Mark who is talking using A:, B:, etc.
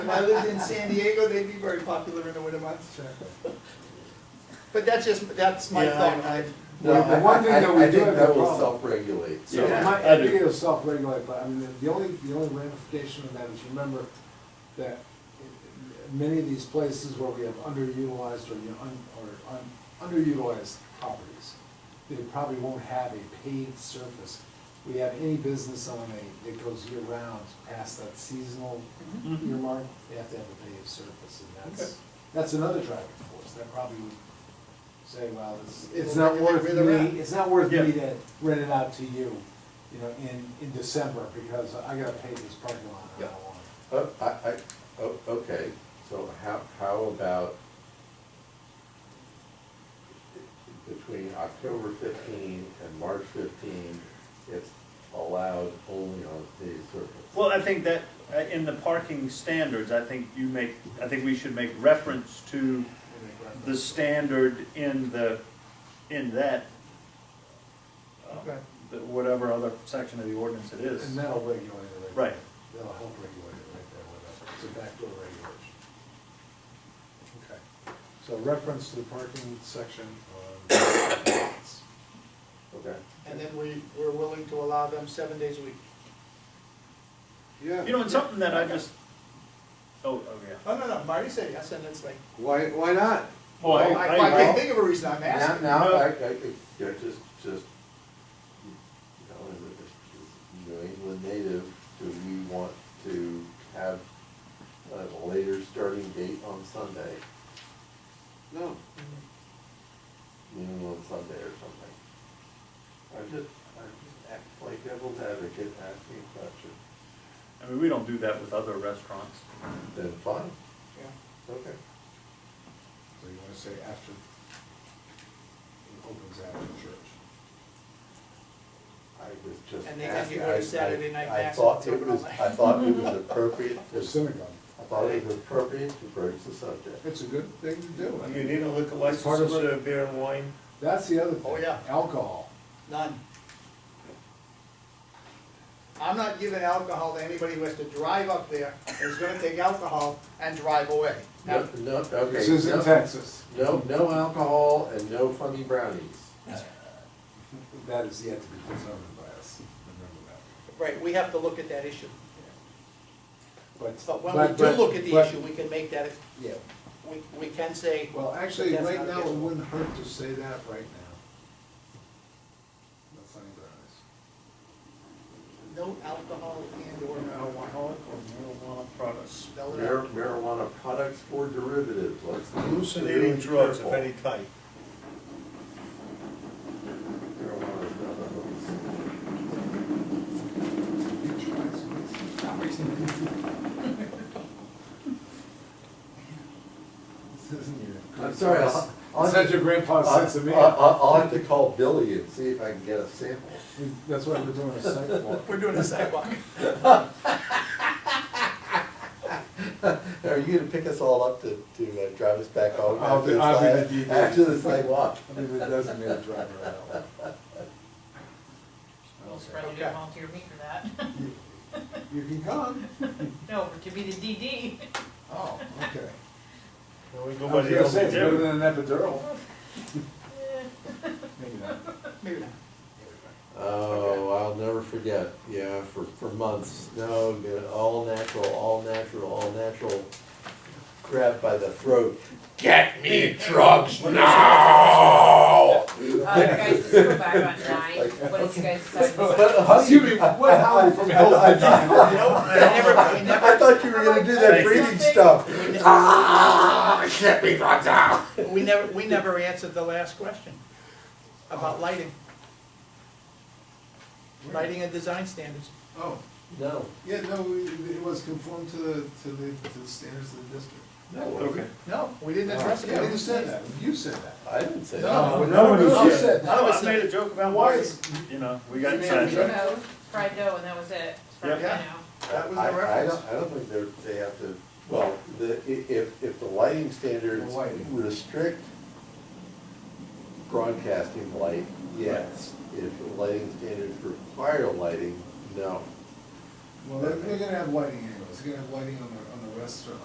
A: If I lived in San Diego, they'd be very popular in the winter months. But that's just, that's my
B: Yeah, I-
A: thought.
B: I-
C: The
D: Well, I-
C: one thing
D: I-
C: that we
D: I
C: do
D: think
C: have
D: that
C: a
D: will
C: problem-
D: self-regulate, so.
C: Yeah, my,
B: I
C: I
B: do.
C: think it'll self-regulate, but I mean, the- the only, the only ramification of that is remember that many of these places where we have underutilized or, you know, un, or un, underutilized properties, they probably won't have a paved surface. We have any business on a, that goes year-round past that seasonal
B: Mhm.
C: earmark, they have to have a paved surface, and that's, that's another driving force, that probably would say, well, it's, it's not
A: Well,
C: worth
A: rid of that.
C: me, it's not worth
B: Yeah.
C: me to rent it out to you, you know, in, in December, because I gotta pay this parking lot. and I don't
A: Yeah.
C: want it.
D: Uh, I, I, oh, okay, so how, how about between October fifteen and March fifteen, it's allowed only on city surface?
B: Well, I think that, uh, in the parking standards, I think you make, I think we should make reference to
C: We make reference.
B: the standard in the, in that, uh,
A: Okay.
B: the- whatever other section of the ordinance it is.
C: And that'll regulate it right there.
B: Right.
C: That'll help regulate it right there with that, it's a backdoor regulation. Okay, so reference to the parking section on.
D: Okay.
A: And then we, we're willing to allow them seven days a week.
B: You know, it's something that I just, oh, oh, yeah.
A: No, no, no, Marty said yes, and it's like,
E: Why, why not?
B: Well, I-
A: I
B: I-
A: I
D: well,
A: can't think of a reason I'm
D: Now,
A: asking.
D: now, I, I, think they're just, just, you know, as a- as a New England native, do we want to have a later starting date on Sunday,
E: No.
D: noon on Sunday or something? I'm just, I'm just act like devil's advocate, asking a question,
B: I mean, we don't do that with other restaurants.
D: then fine,
A: Yeah.
D: okay.
C: So you wanna say after, it opens after church.
D: I was just
A: And
D: asking.
A: they can get rid of
D: I- I-
A: Saturday night
D: I
A: mass
D: thought
A: and
D: it was,
A: terminal.
D: I thought it was appropriate
C: Or
D: to,
C: synagogue.
D: I thought it was appropriate to broach the subject.
C: It's a good thing to do. I mean,
B: need a liquor
C: license Part of it- to
B: beer and wine?
C: That's the other thing.
A: Oh, yeah.
C: Alcohol.
A: None. I'm not giving alcohol to anybody who has to drive up there, and is gonna take alcohol and drive away.
D: No, no, okay.
C: This is in
D: no-
C: Texas.
D: No, no alcohol and no funny brownies.
C: That is yet to be determined by us, remember that.
A: Right, we have to look at that issue.
C: But.
A: But when we do
C: but-
A: look at the
C: but-
A: issue, we can make that,
C: Yeah,
A: we, we can say,
C: well, actually,
A: That's
C: right
A: not
C: now, it
A: against-
C: wouldn't hurt to say that right now. That's not even honest.
A: no alcohol and or marijuana.
B: Alcoholic or marijuana products.
A: Spell it
D: Mar-
A: out.
D: Marijuana products or derivatives, let's. be
F: hallucinating
D: really
F: drugs of
D: careful.
F: any type.
D: Marijuana is not a hoax.
C: This isn't your.
D: I'm sorry, I'll- I'll-
C: It's not your grandpa's
D: I'll-
C: sense of me.
D: I'll, I'll- I'll have to call Billy and see if I can get a sample.
C: That's why we're doing a site walk.
A: We're doing a sidewalk.
D: Are you gonna pick us all up to, to uh, drive us back home
C: I'll
D: after
C: be-
D: this,
C: I'll be
D: last-
C: the DD.
D: after this night walk?
C: I mean, it doesn't mean a driver at all.
G: Well,
C: Okay.
G: Spread, you
A: Okay.
G: didn't volunteer me for that.
C: You can come.
G: No, to be the DD.
C: Oh, okay. I was
F: Nobody
C: gonna
F: else
C: say, it's
F: would
C: better
F: do.
C: than an epidural.
G: Eh.
C: Maybe not.
A: Maybe not.
D: Oh, I'll never forget, yeah, for, for months, no, good, all natural, all natural, all natural. Grabbed by the throat, get me drugs now!
G: Uh, you guys just go back on nine, what did you guys decide?
D: But how do
C: Excuse me,
D: you, I,
C: what howling from hell?
D: I-
A: Never, never.
D: I thought you were gonna do
B: Thanks.
D: that breathing stuff. Ah, get me drugs now!
A: We never, we never answered the last question about lighting. Lighting and design standards.
C: Oh,
D: No,
C: yeah, no, it was conformed to the, to the, to the standards of the district.
B: Okay.
A: No, we didn't address it.
C: Yeah, you said that, you said that.
D: I didn't say
A: No.
D: that.
C: nobody
B: no.
C: said
B: I know, I made a joke about
C: Why
B: wine,
C: is-
B: you know, we got
A: Yeah,
B: inside.
A: yeah.
G: No, fried dough, and that was it, as far as
A: Yeah.
G: I know.
A: That was the
D: I- I
A: reference.
D: don't- I don't think they're, they have to, well, the, i- if, if the lighting standards
C: The lighting.
D: restrict broadcasting light, yes. If the lighting standards require lighting, no.
C: Well, they're, they're gonna have lighting anyways, they're gonna have lighting on the, on the that's true.